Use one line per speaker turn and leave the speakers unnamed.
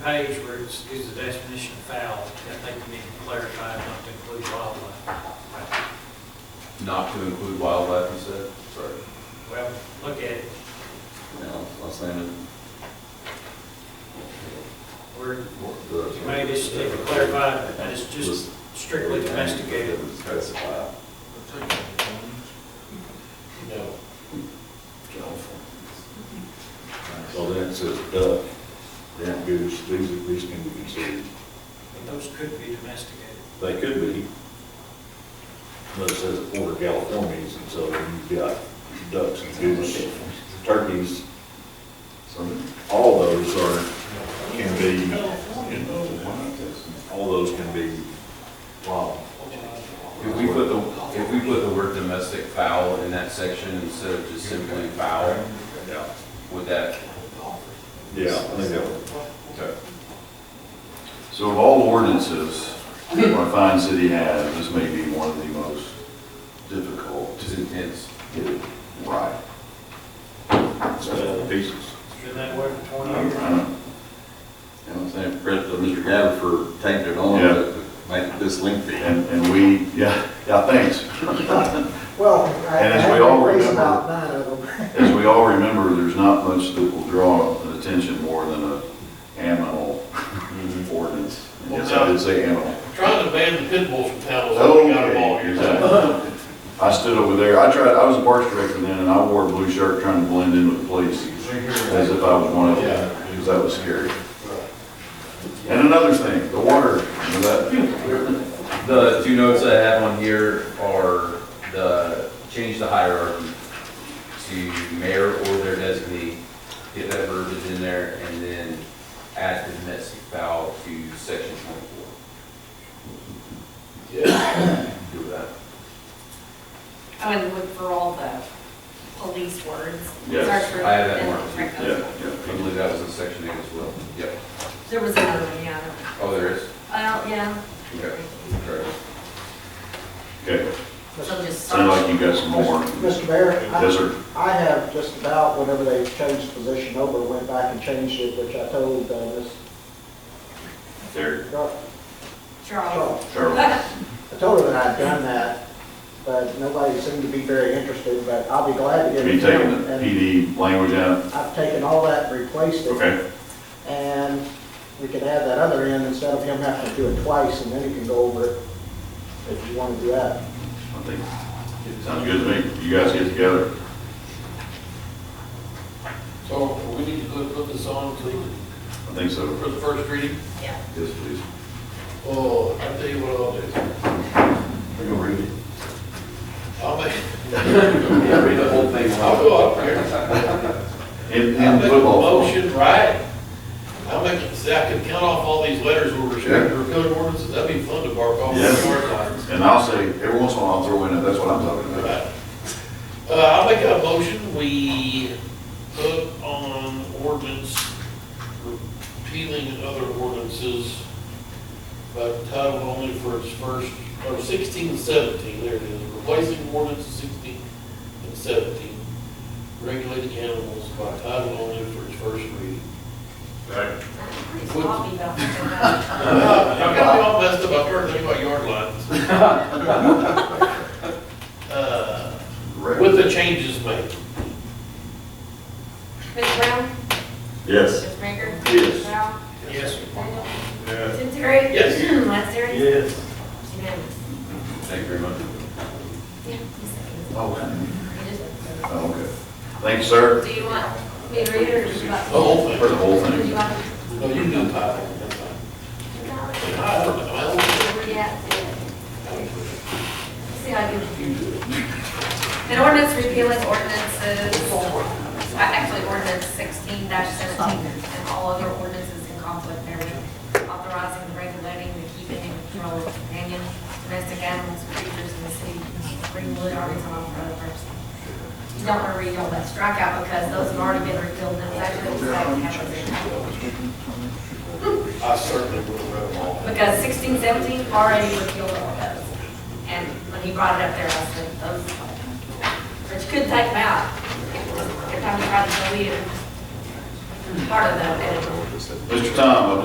page where it's, is the definition of foul, I think we need to clarify not to include wildlife.
Not to include wildlife, you said? Sorry.
Well, look at it,
No, I was saying
we're,
it.
maybe it's to clarify that it's just strictly domesticated.
Specify.
No.
So then it says duck, ground goose, these, these can be considered,
But Those could be domesticated.
they could be. But it says order Californians, and so you've got ducks and goose, turkeys, all those are, can be, all those can be wild.
If we put the, if we put the word domestic fowl in that section instead of just simply fowl,
Yeah.
would that?
Yeah, I think that would.
Okay.
So of all ordinances our fine city has, this may be one of the most difficult
Just intense.
to get it right.
That's all the pieces.
It's Been that way for
I
twenty
don't-
years.
I don't-
And I'm saying, credit to Mr. Gabbard for taking it on
Yeah.
to make this lengthy.
And, and we, yeah, yeah, thanks.
Well, I I
And as we
have
all
a raise
remember-
about nine of them.
As we all remember, there's not much that will draw attention more than a animal
Mm-hmm.
ordinance. And Yes, I did say animal.
Trying to ban the pit bulls from town, so we got them all here.
Okay. I stood over there, I tried, I was a parks director then, and I wore a blue shirt trying to blend in with the police, as if I was one of them, because that was scary. And another thing, the water, you know that,
The two notes I have on here are the, change the hierarchy to mayor or their designee, get that verbiage in there, and then add the domestic fowl to section twenty-four. Yeah. Do that.
I would look for all the police words.
Yes,
Search for-
I have that
and
marked.
check
yeah,
those.
I
yeah.
believe that was in section eight as well. Yep.
There was another one, yeah. I don't-
Oh, there is?
Well, yeah.
Okay. Correct.
Okay,
So just
sounded like
search.
you got some more.
Mr. Mayor? I-
Yes, sir.
I have just about, whenever they changed position over, went back and changed it, which I told uh, Ms.
There,
Gar-
Charles.
Charles.
Charlie.
I told her that I'd done that, but nobody seemed to be very interested, but I'll be glad to get
Have
it.
you taken
done.
the
And
PD language out?
I've taken all that and replaced it.
Okay,
And we could add that other end instead of him having to do it twice, and then he can go over it if you want to do that.
I think, it sounds good to me, you guys get together.
So we need to go put this on to,
I think so.
for the first reading.
Yeah.
Yes, please.
Oh, I'll tell you what I'll do.
We're gonna read it.
I'll make,
Yeah, read the whole thing.
I'll go up there.
In,
I'll
in
make a
football. form.
motion, right? I'll make, it- see, I can count off all these letters we're restricted or code ordinances, that'd be fun to bark off.
Yes.
Yes.
And I'll say, every once in a while, I'll throw in, that's what I'm talking about.
Uh, I'll make a motion, we put on ordinance repealing other ordinances, but title only for its first, or sixteen seventeen, there it is, replacing ordinance sixteen and seventeen, regulating animals by title only for its first reading.
Pretty sloppy about that.
I got it all messed up, I heard things about yard lines. Uh, With the changes made.
Ms. Brown?
Yes.
Ms. Baker?
Yes.
Ralph?
Yes.
Daniel? Terry?
Yes.
Lester?
Yes.
Unanimous.
Thank you very much.
Yeah, you said
Oh,
it.
okay. Thank you, sir.
Do you want me to read it or just about?
The whole thing.
For the whole
Do
thing.
you want?
No, you do title, that's fine. I don't know, I don't
Yeah. See how I do. An ordinance repealing ordinances, uh, actually ordinance sixteen seventeen and all other ordinances in conflict therewith, authorizing, and regulating the keeping and control of companion domestic animals, creatures in the city of Greenwood, Arkansas, for other purposes. You don't want to read all that strikeout because those have already been repealed, and that's actually the second half of it.
I certainly would have read them all.
Because sixteen, seventeen already repealed all those. And when he brought it up there, I said, those, but you couldn't take them out. Every time you tried to delete it, part of them, and it
Mr. Tom, I